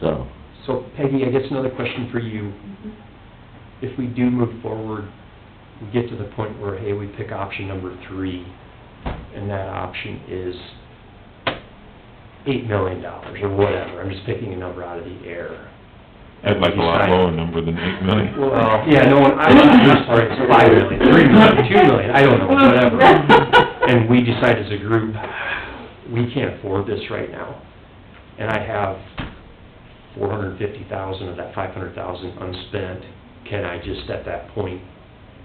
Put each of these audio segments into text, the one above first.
so. So Peggy, I guess another question for you. If we do move forward, we get to the point where, hey, we pick option number three, and that option is eight million dollars or whatever, I'm just picking a number out of the air. I'd like a lot lower number than eight million. Well, yeah, no, one- I'm, I'm Oh. sorry, it's five million, three million, two million, I don't know, whatever. And we decide as a group, we can't afford this right now. And I have four hundred and fifty thousand of that five hundred thousand unspent. Can I just at that point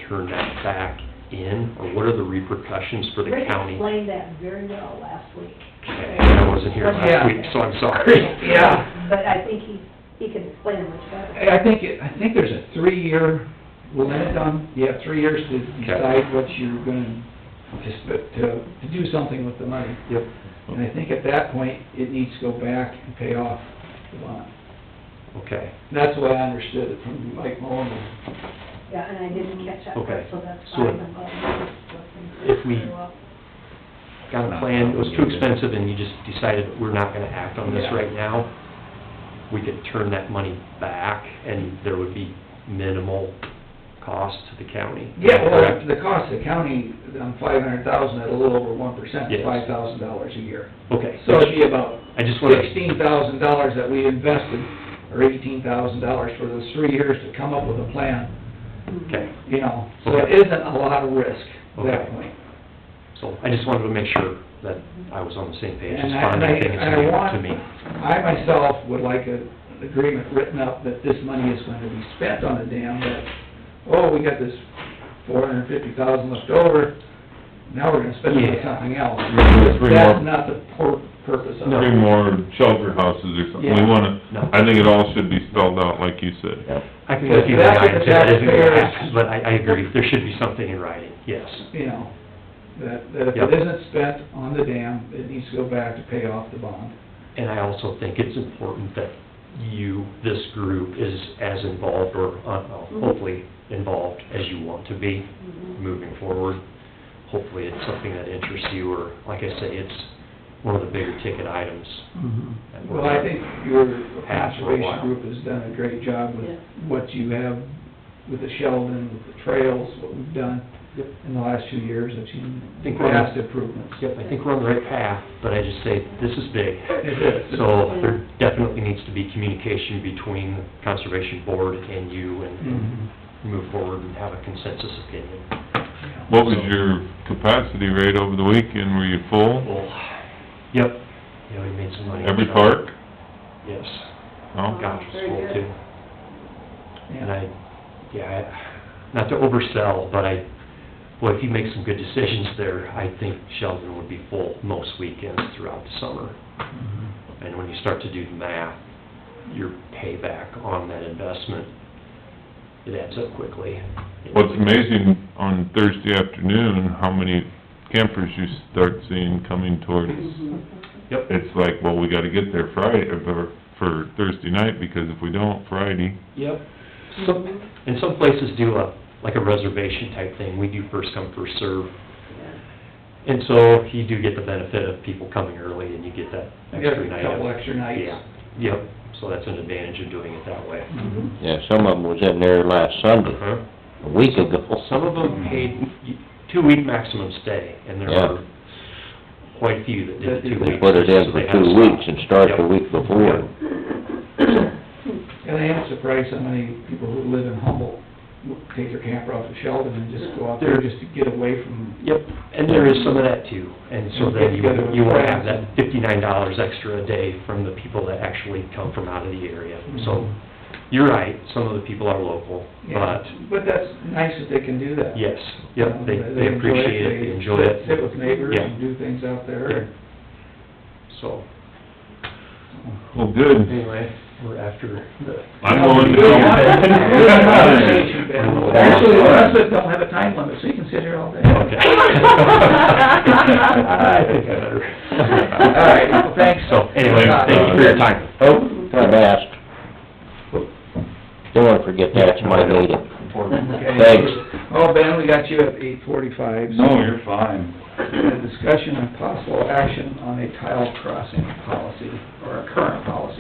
turn that back in? Or what are the repercussions for the Rick county? explained that very well last week. Okay, I wasn't here Yeah. last week, so I'm sorry. Yeah. But I think he, he can explain it much better. I think, it- I think there's a three-year limit on, you have three years to decide what you're gonna, just to, to do something with the money. Yep. And I think at that point, it needs to go back and pay off the bond. Okay, That's the way I understood it from Mike Mullin. Yeah, and I didn't catch up, Okay. so that's So- fine. I'm glad you If we- listened very well. got a plan, it was too expensive and you just decided we're not gonna act on this Yeah. right now. We could turn that money back and there would be minimal cost to the county. Yeah, well, Correct? the cost of the county, on five hundred thousand, at a little over one percent, Yes. five thousand dollars a year. Okay. So it'd be about I just wanna, sixteen thousand dollars that we invested, or eighteen thousand dollars for those three years to come up with a plan, Mm-hmm. okay, you know? So it isn't a lot of risk at that Okay. point. so I just wanted to make sure that I was on the same page as And I- far as and I- anything and I that's new want- to me. I myself would like a- an agreement written up that this money is going to be spent on the dam, that, oh, we got this four hundred and fifty thousand left over, now we're gonna spend it on Yeah. something else. Three more- That's not the pur- purpose of Three it. more shelter houses or something, we Yeah. wanna, No. I think it all should be spelled out like you said. Yep. I can give you the That's what the guidance if that isn't gonna taxpayers- happen, but I, I agree, there should be something in writing, yes. You know, that, that if Yep. it isn't spent on the dam, it needs to go back to pay off the bond. And I also think it's important that you, this group, is as involved or uh, hopefully involved as you want to be moving forward. Hopefully it's something that interests you or, like I say, it's one of the bigger ticket items. Mm-hmm. that we're- Well, I think your Has for a while. conservation group has done a great job with Yeah. what you have with the Sheldon, with the trails, what we've done Yep. in the last few years, that I you think we're on- past improvements. Yep, I think we're on the right path, but I just say, this is big. It is. So there definitely needs to be communication between the Conservation Board and you and Mhm. move forward and have a consensus opinion. What was your capacity rate over the weekend, were you full? Well, yep, yeah, we made some money. Every park? Oh. Yes, No? gosh, it's Oh, Very full good. too. And Yeah. I, yeah, I, not to oversell, but I, well, if you make some good decisions there, I think Sheldon would be full most weekends throughout the summer. Mhm. And when you start to do the math, your payback on that investment, it adds up quickly. What's amazing, on Thursday afternoon, how many campers you start seeing coming towards. Mm-hmm. Yep. It's like, well, we gotta get there Friday, or for Thursday night, because if we don't Friday, Yep. Some, and some places do a, like a reservation type thing, we do first come, first serve. And so you do get the benefit of people coming early and you get that You get a extra night. of- couple extra nights. Yeah, yep, so that's an advantage of doing it that way. Mhm. Yeah, some of them was in there last Sunday, Uh-huh. a week ago. Some of Hmm. them paid two-week maximum stay, and there Yeah. were quite a few that did the two They weeks. put it in so they for had to two stop. weeks and start the Yep. week before. Mm-hmm. And I am surprised how many people who live in Humboldt w- take their camper off to Sheldon and just go out there just to get away from, Yep, and there is some of that too, and so then you, you will have that fifty-nine dollars extra a day from the people that actually come from out of the area. Mm-hmm. So, you're right, some of the people are local, yeah. but, But that's nice that they can do that. yes, yep, they, they enjoy appreciate it, they enjoy it. Sit with neighbors Yeah. and do things out Yeah. there. So, well, good. anyway, we're after the I'm going to. Actually, the rest of us don't have a time limit, so you can sit here all day. Okay. I think I better. All right, well, thanks. So, anyway, thank you for your time. Oh, I'm asked. Don't wanna forget that's my meeting. Okay. Thanks. Oh, Ben, we got you at eight forty-five. No, you're fine. A discussion on possible action on a tile crossing policy, or a current policy.